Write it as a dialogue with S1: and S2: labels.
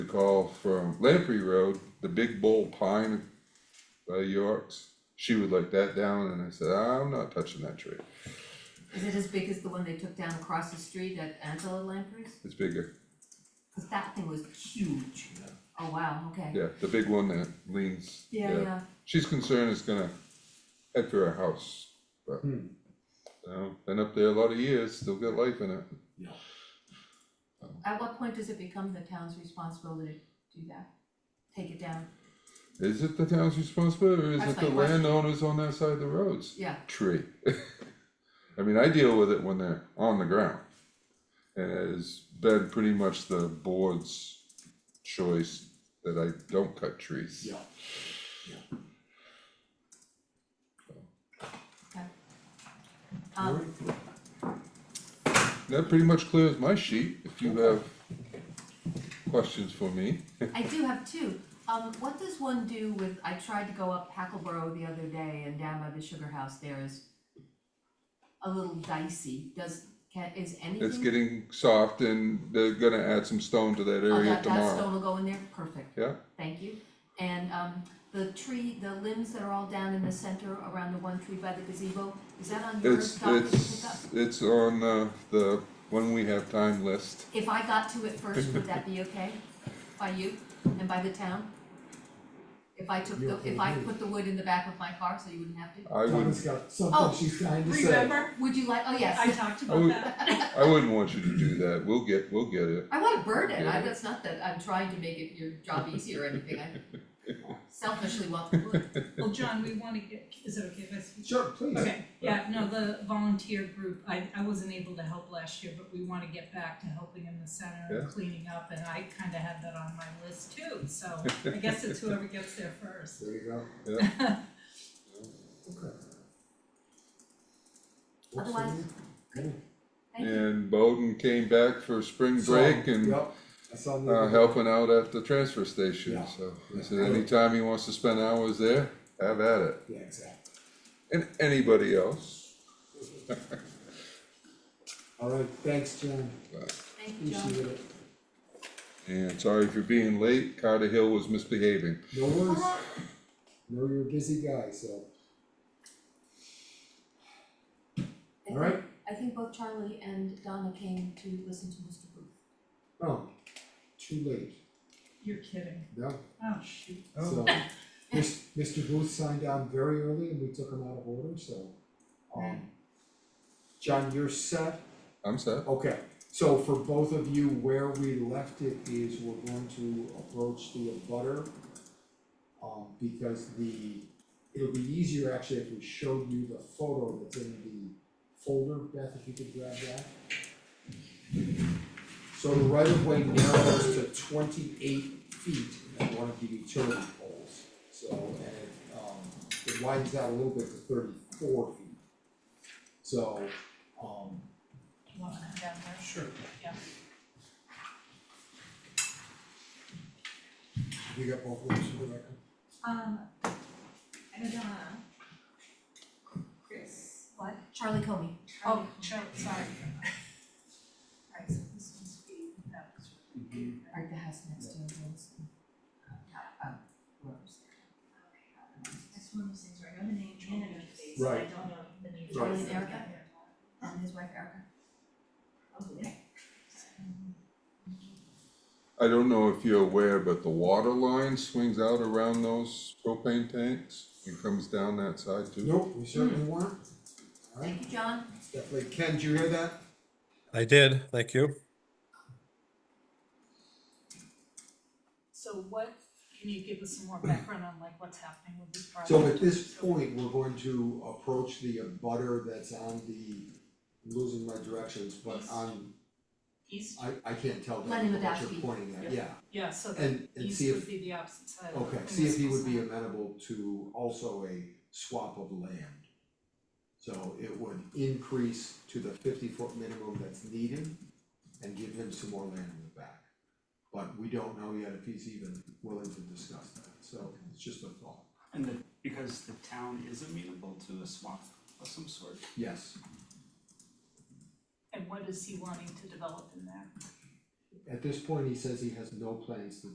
S1: a call from Lamprey Road, the big bull pine by York's. She would like that down and I said, I'm not touching that tree.
S2: Is it as big as the one they took down across the street at Angela Lampreys?
S1: It's bigger.
S2: Cause that thing was huge. Oh, wow, okay.
S1: Yeah, the big one that leans.
S2: Yeah, yeah,
S1: She's concerned it's gonna head for her house, but. You know, been up there a lot of years, still got life in it.
S2: at what point does it become the town's responsibility to do that? Take it down,
S1: Is it the town's responsibility or is
S2: That's
S1: it the
S2: my question.
S1: landowners on that side of the roads?
S2: yeah,
S1: Tree. I mean, I deal with it when they're on the ground. And it has been pretty much the board's choice that I don't cut trees.
S3: Yeah,
S2: okay.
S3: alright,
S2: Um,
S1: That pretty much clears my sheet, if you have questions for me.
S2: I do have two, um, what does one do with, I tried to go up Hackleboro the other day and down by the sugar house there is a little dicey, does, can, is anything?
S1: It's getting soft and they're gonna add some stone to that
S2: Oh,
S1: area
S2: that, that
S1: tomorrow.
S2: stone will go in there, perfect.
S1: Yeah,
S2: Thank you. And um the tree, the limbs that are all down in the center around the one tree by the gazebo, is that on your
S1: it's,
S2: docket to pick up?
S1: it's, it's on, uh, the, when we have time list.
S2: If I got to it first, would that be okay by you and by the town? If I took the, if I put the wood in the back of my car so you wouldn't have to?
S1: I would,
S3: Donna's got
S2: Oh,
S3: something she's trying to say.
S4: Remember,
S2: Would you like, oh
S4: I
S2: yes,
S4: talked
S1: I
S4: about
S1: would-
S4: that.
S1: I wouldn't want you to do that, we'll get, we'll get it.
S2: I wanna burn it, I,
S1: Yeah.
S2: that's not that I'm trying to make it your job easier or anything, I selfishly want the wood.
S4: Well, John, we wanna get, is it okay if I speak?
S3: Sure, please.
S4: Okay, yeah, no, the volunteer group, I I wasn't able to help last year, but we wanna get back to helping in the center
S1: Yeah.
S4: and cleaning up, and I kinda had that on my list too, so I guess it's whoever gets there first.
S3: There you go, okay. Works for
S2: Otherwise,
S3: me. Okay.
S2: Thank you.
S1: And Bowden came back for spring break
S3: So,
S1: and,
S3: Yep, I saw the.
S1: uh, helping out at the transfer station,
S3: Yeah,
S1: so.
S3: yeah.
S1: He said, anytime he wants to spend hours there, have at it,
S3: Yeah, exactly,
S1: and anybody else.
S3: alright, thanks, John,
S2: Thank you, John.
S3: appreciate it,
S1: And sorry for being late, Carter Hill was misbehaving.
S3: no worries,
S2: Uh-huh.
S3: know you're a busy guy, so,
S2: I think-
S3: alright,
S2: I think both Charlie and Donna came to listen to Mr. Booth.
S3: oh, too late,
S4: You're kidding,
S3: no,
S4: oh shoot.
S3: so. Mis- Mr. Booth signed on very early and we took him out of order, so, um. John, you're set,
S1: I'm set,
S3: Okay, so for both of you, where we left it is we're going to approach the abutter. Um, because the, it'll be easier actually if we showed you the photo that's in the folder, Beth, if you could grab that. So the right of way narrows to twenty-eight feet at one of the utility poles, so, and it, um, it widens out a little bit to thirty-four feet. So, um,
S4: You wanna come down there?
S3: Sure.
S4: Yeah.
S3: You got both of those for the record?
S4: Um, Donna. uh, Chris. What?
S2: Charlie Comey.
S4: Oh, Charlie, sorry. Alright, so this one's being, that was.
S2: Right, the house next to him, Wilson. Uh, uh, Rose.
S4: That's one of those things where I know the name, I know the face,
S3: and I
S4: I
S3: Right.
S4: don't know the name.
S3: Right.
S2: Charlie and Erica. And his wife Erica.
S1: I don't know if you're aware, but the water line swings out around those propane tanks and comes down that side too.
S3: Nope, we certainly weren't. Alright,
S2: Thank you, John.
S3: it's definitely, Ken, did you hear that?
S5: I did, thank you.
S4: So what, can you give us some more background on like what's happening with this project?
S3: So at this point, we're going to approach the abutter that's on the, I'm losing my directions, but on,
S4: East,
S3: I, I can't tell that
S2: Lenny
S3: what
S2: Wadowski.
S3: you're pointing at, yeah.
S4: yeah, so the
S3: And, and see
S4: east would
S3: if,
S4: be the opposite side of.
S3: okay, see if he would be amenable to also a swap of land. So it would increase to the fifty foot minimum that's needed and give him some more land in the back. But we don't know yet if he's even willing to discuss that, so it's just a thought,
S6: And the, because the town is amenable to a swap of some sort,
S3: yes.
S4: And what is he wanting to develop in there?
S3: At this point, he says he has no plans to